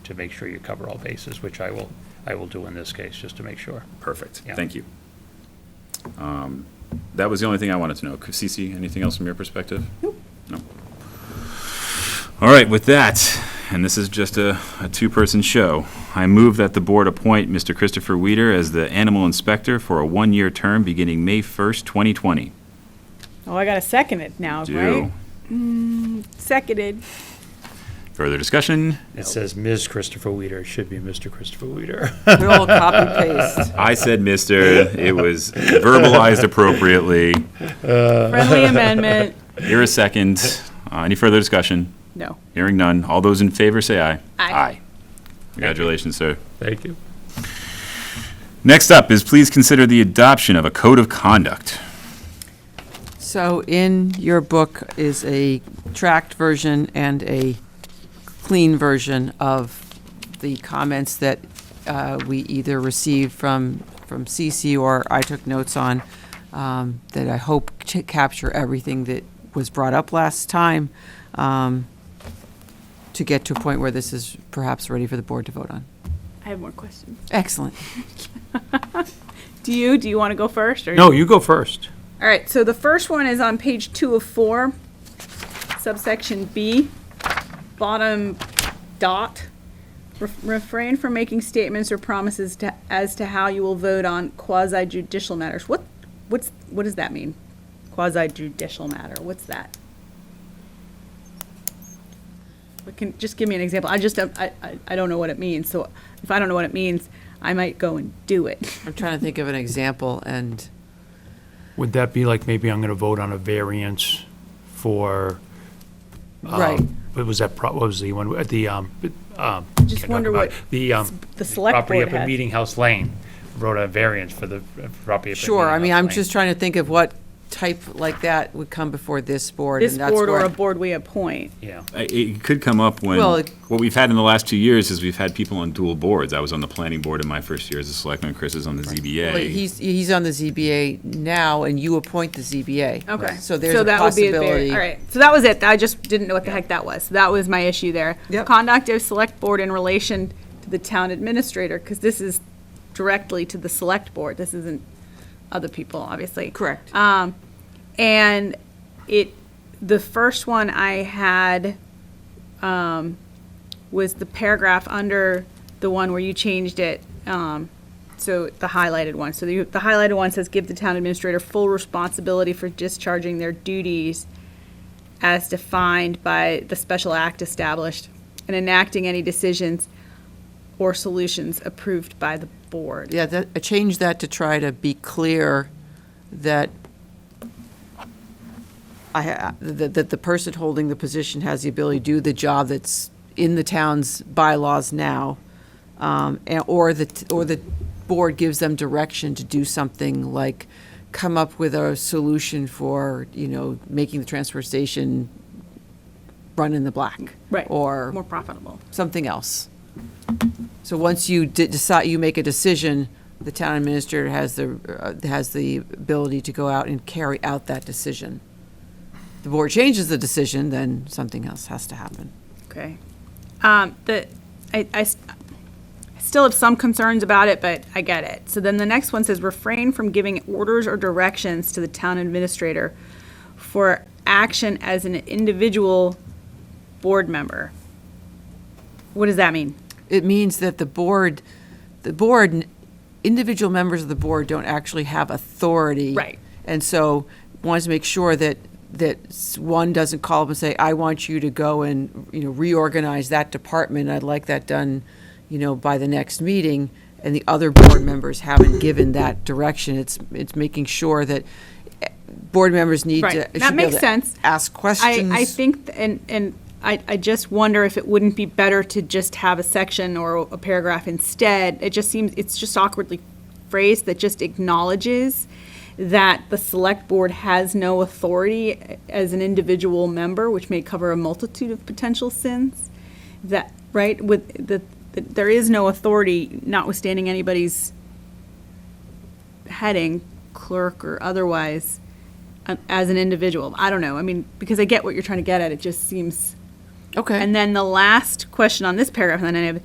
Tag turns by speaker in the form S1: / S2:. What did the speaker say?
S1: to make sure you cover all bases, which I will, I will do in this case, just to make sure.
S2: Perfect,
S1: Yeah.
S2: thank you. Um, That was the only thing I wanted to know. Cece, anything else from your perspective? Nope. No. All right, with that, and this is just a, a two-person show, I move that the board appoint Mr. Christopher Weeder as the animal inspector for a one-year term beginning May 1st, 2020.
S3: Oh, I gotta second it now,
S2: Do.
S3: right? Mm, Seconded.
S2: Further discussion?
S1: It says Ms. Christopher Weeder, it should be Mr. Christopher Weeder.
S4: We all copy paste.
S2: I said, "Mr." It was verbalized appropriately.
S3: Friendly amendment.
S2: Here a second. Uh, Any further discussion?
S3: No.
S2: Hearing none. All those in favor say aye.
S3: Aye.
S2: Congratulations, sir.
S1: Thank you.
S2: Next up is please consider the adoption of a code of conduct.
S4: So in your book is a tracked version and a clean version of the comments that uh, we either received from, from CC or I took notes on, um, that I hope to capture everything that was brought up last time, um, to get to a point where this is perhaps ready for the board to vote on.
S3: I have more questions.
S4: Excellent.
S3: Do you, do you want to go first? or-
S1: No, you go first.
S3: All right, so the first one is on page two of four, subsection B, bottom dot. Ref- Refrain from making statements or promises to, as to how you will vote on quasi judicial matters. What, what's, what does that mean? Quasi judicial matter, what's that? But Can, just give me an example. I just, don't- I, I, I don't know what it means, so if I don't know what it means, I might go and do it.
S4: I'm trying to think of an example and.
S5: Would that be like, maybe I'm going to vote on a variance for? um,
S4: Right.
S5: What was that, pro- what was the one, uh, the, um, um.
S3: Just
S5: can't talk
S3: wonder
S5: about
S3: what
S5: it. The, um,
S3: The select
S5: property
S3: board
S5: up in
S3: had.
S5: Meeting House Lane wrote a variance for the uh, property. up in
S4: Sure, I
S5: Meeting
S4: mean,
S5: House
S4: I'm
S5: Lane.
S4: just trying to think of what type like that would come before this board.
S3: This
S4: and that's
S3: board or
S4: where-
S3: a board we appoint.
S5: Yeah.
S2: I- It could come up when,
S4: Well, it-
S2: what we've had in the last two years is we've had people on dual boards. I was on the planning board in my first year as a selectman, Chris is on the
S4: Well,
S2: ZBA.
S4: He's, he's on the ZBA now, and you appoint the ZBA.
S3: Okay.
S4: So there's a
S3: that would be a bar-
S4: possibility.
S3: All right, so that was it. I just didn't know what the heck that was. That was my issue there.
S4: Yep.
S3: Conduct of select board in relation to the town administrator, because this is directly to the select board. This isn't other people, obviously.
S4: Correct.
S3: Um, and it, the first one I had, um, was the paragraph under the one where you changed it, um, so the highlighted one. So the, the highlighted one says, give the town administrator full responsibility for discharging their duties as defined by the special act established and enacting any decisions or solutions approved by the board.
S4: Yeah, that, I changed that to try to be clear that I, ha- that, that the person holding the position has the ability to do the job that's in the town's bylaws now, um, and, or the, t- or the board gives them direction to do something like come up with a solution for, you know, making the transfer station run in the black.
S3: Right.
S4: Or
S3: More profitable.
S4: something else. So once you de- decide, you make a decision, the town administrator has the, uh, has the ability to go out and carry out that decision. The board changes the decision, then something else has to happen.
S3: Okay. Um, the, I, I s- I still have some concerns about it, but I get it. So then the next one says refrain from giving orders or directions to the town administrator for action as an individual board member. What does that mean?
S4: It means that the board, the board, individual members of the board don't actually have authority.
S3: Right.
S4: And so wanted to make sure that, that s- one doesn't call up and say, I want you to go and, you know, reorganize that department. I'd like that done, you know, by the next meeting. And the other board members haven't given that direction. It's, it's making sure that eh, board members need to.
S3: Right.
S4: should be
S3: That
S4: able
S3: makes
S4: to
S3: sense.
S4: Ask
S3: I,
S4: questions.
S3: I think, th- and, and I, I just wonder if it wouldn't be better to just have a section or a paragraph instead. It just seems, it's just awkwardly phrased that just acknowledges that the select board has no authority as an individual member, which may cover a multitude of potential sins. That, right, with, the that there is no authority notwithstanding anybody's heading, clerk or otherwise, um, as an individual. I don't know. I mean, because I get what you're trying to get at, it just seems.
S4: Okay.
S3: And then the last question on this paragraph, and then I have